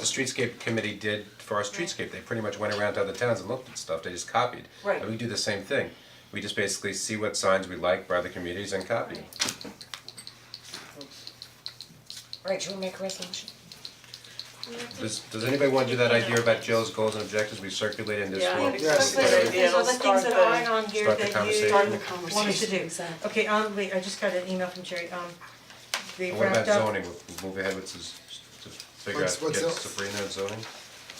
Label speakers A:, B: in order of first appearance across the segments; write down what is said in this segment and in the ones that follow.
A: the streetscape committee did for our streetscape, they pretty much went around to other towns and looked at stuff, they just copied.
B: Right.
A: And we do the same thing, we just basically see what signs we like by other communities and copy.
B: Right, should we make a resolution?
A: Does, does anybody wanna do that idea about Jill's goals and objectives we circulated in this
C: Yeah,
A: form?
C: I think Yes.
D: But
C: Right.
D: there's other things that aren't on here
A: Start the
D: that you
A: conversation.
D: wanted to do. Okay, um, wait, I just got an email from Jerry, um, they
A: And what
D: wrapped
A: about
D: up.
A: zoning, We'll- we'll move ahead with this, to figure out,
E: What's-
A: get
E: what's else?
A: Sabrina on zoning?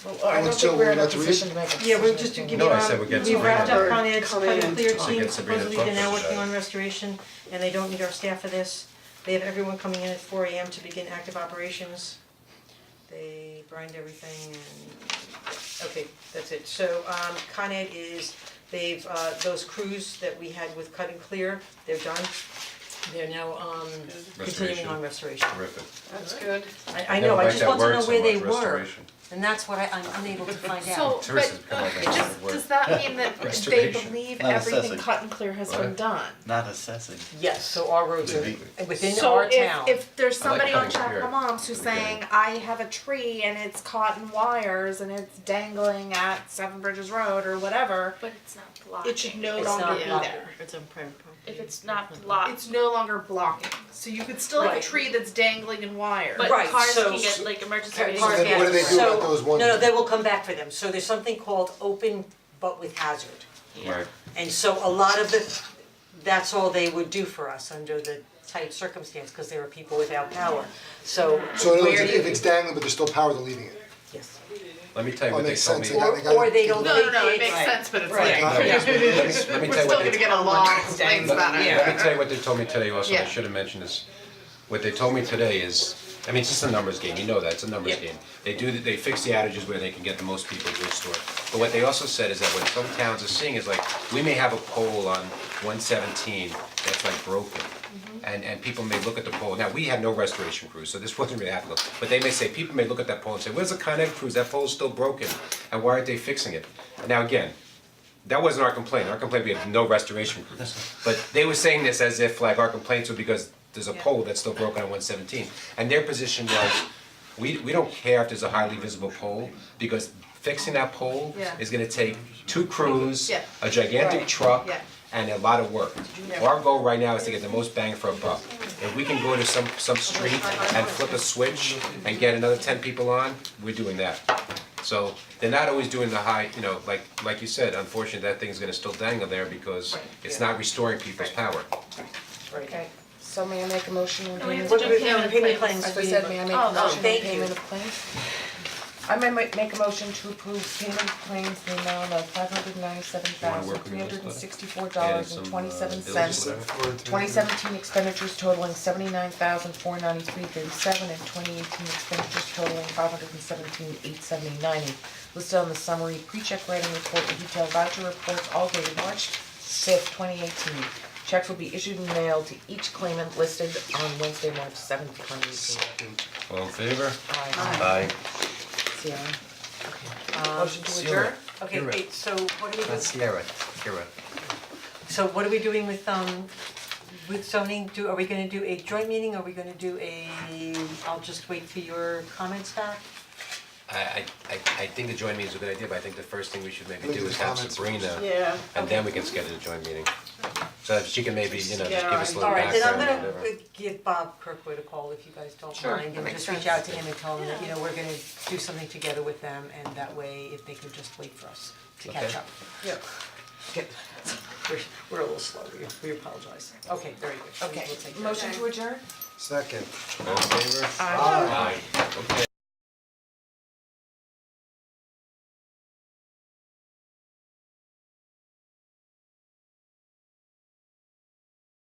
D: Oh,
B: Well, I don't
E: Alex, Jill,
B: think we're in a
E: would you like to read?
B: position to make a decision.
D: Yeah, we're just to give
A: No,
D: you,
A: I said we
D: um,
A: get
D: we wrapped
A: Sabrina.
D: up Con Ed's
C: Come
D: Cut
C: in.
D: and Clear
A: So
D: team,
A: get Sabrina
D: supposedly they're now
A: focused
D: working
A: on
D: on
A: it.
D: restoration, and they don't need our staff for this. They have everyone coming in at four AM to begin active operations. They brined everything and, okay, that's it. So, um, Con Ed is, they've, uh, those crews that we had with Cut and Clear, they're done. They're now, um, continuing
A: Restoration.
D: on restoration.
A: Terrific.
C: That's good.
D: I, I know, I just want to know where they
A: Never liked
D: were.
A: that word so much, restoration.
B: And that's what I, I'm unable to find out.
F: So,
A: Tourists
F: but,
A: have become
D: Oh,
A: like
F: okay, does,
A: that word.
F: does that mean that they
A: Restoration.
F: believe
G: Not
F: everything
G: assessing.
F: cut and clear has been
A: What?
F: done?
G: Not assessing.
B: Yes, so our roads are
G: Maybe.
B: within our town.
F: So if, if there's
A: I like
F: somebody on
A: cutting
F: Chapel
A: clear.
F: Moms who's
A: Okay.
F: saying, I have a tree and it's caught in wires and it's dangling at Seven Bridges Road or whatever,
H: But it's not blocking.
F: it should no
B: It's
F: longer
B: not
F: be
B: blocking.
F: there.
D: It's on private property.
H: If it's not blocked,
F: It's no longer blocking, so you could still have a
B: Right.
F: tree that's dangling in wires.
H: but
B: Right,
H: cars
B: so-
H: can get like emergency.
B: Right,
H: vehicles.
B: cars
E: So then what do they do about those ones?
B: So, no, no, they will come back for them, so there's something called open but with hazard.
A: Right,
B: And so a lot of the, that's all they would do for us under the tight circumstance, cause there are people without power, so where do you?
E: So in other words, if it's dangling, but there's still power, they're leaving it.
B: Yes,
A: let me tell you
E: Oh,
A: what they
E: makes
A: told me.
E: sense.
B: or
E: gotta-
B: or they don't
C: No, no, no, it
B: think
C: makes
B: it's-
C: sense, but it's like,
B: Right.
E: Got it.
A: Let me, let me
C: we're
A: tell you
C: still
A: what
C: gonna
A: they,
C: get a lot of complaints about it.
A: let me tell you what they told me today also, I
C: Yeah.
A: should have mentioned this. What they told me today is, I mean, it's just a numbers game, you know that, it's a numbers game. They do, they fix the outages where they can get the most people to restore. But what they also said is that what some towns are seeing is like, we may have a pole on one seventeen that's like broken. And and people may look at the pole, now, we had no restoration crews, so this wasn't really applicable, but they may say, people may look at that pole and say, where's the Con Ed crews, that pole's still broken, and why aren't they fixing it? Now, again, that wasn't our complaint, our complaint, we have no restoration crews. But they were saying this as if like our complaints were because there's a pole that's still broken on one seventeen. And their position was, we we don't care if there's a highly visible pole, because fixing that pole
C: Yeah.
A: is gonna take two crews,
C: Yeah.
A: a gigantic
D: Right.
A: truck,
C: Yeah.
A: and a lot of work.
C: Yeah.
A: Our goal right now is to get the most bang for a buck. If we can go to some some street and flip a switch and get another ten people on, we're doing that. So they're not always doing the high, you know, like like you said, unfortunately, that thing's gonna still dangle there because it's not restoring people's power.
B: right,
D: Okay, so may I make a motion on
H: No, we have
D: payment?
H: to
D: of-
H: do
D: As
H: payment of
D: payment
H: claims.
D: claims,
H: As
D: we
H: I
D: need-
H: said,
D: may I make
B: Oh,
D: a
B: oh,
D: motion on
B: thank
D: payment
B: you.
D: of claims? I may ma- make a motion to approve payment of claims in the amount of five hundred ninety-seven thousand, three hundred and sixty-four dollars and twenty-seven cents. Twenty seventeen expenditures totaling seventy-nine thousand, four ninety-three thirty-seven, and twenty eighteen expenditures totaling five hundred and seventeen, eight seventy, ninety. Listed on the summary, pre-check writing report, and detailed voucher reports, all dated March fifth, twenty eighteen. Checks will be issued and mailed to each claimant listed on Wednesday, March seventh, twenty eighteen.
A: All in favor?
D: See, I-
B: motion to
A: Sierra.
B: adjourn? Okay,
A: Sierra.
B: wait, so what are we doing,
A: Sierra, Sierra.
B: so what are we doing with um with zoning, do, are we gonna do a joint meeting, are we gonna do a, I'll just wait for your comments back?
A: I I I I think the joint meeting is a good idea, but I think the first thing we should maybe
E: Look at
A: do
E: the
A: is have
E: comments
A: Sabrina,
C: Yeah.
A: and then we can schedule a joint meeting. So that she can maybe, you know, just give
C: Yeah,
A: us a little
B: Alright, then I'm
A: background and
B: gonna
A: whatever.
B: give Bob Kirkwood a call if you guys don't
C: Sure.
B: mind, and just reach out to him and tell him that, you know, we're gonna do something together with them, and that way, if they could just wait for us to catch
A: Okay.
B: up. Okay. We're we're a little slow, we we apologize, okay, very good, okay, we'll take care of that.
D: Motion to adjourn?
E: Second.
A: All in favor? Aye. Okay.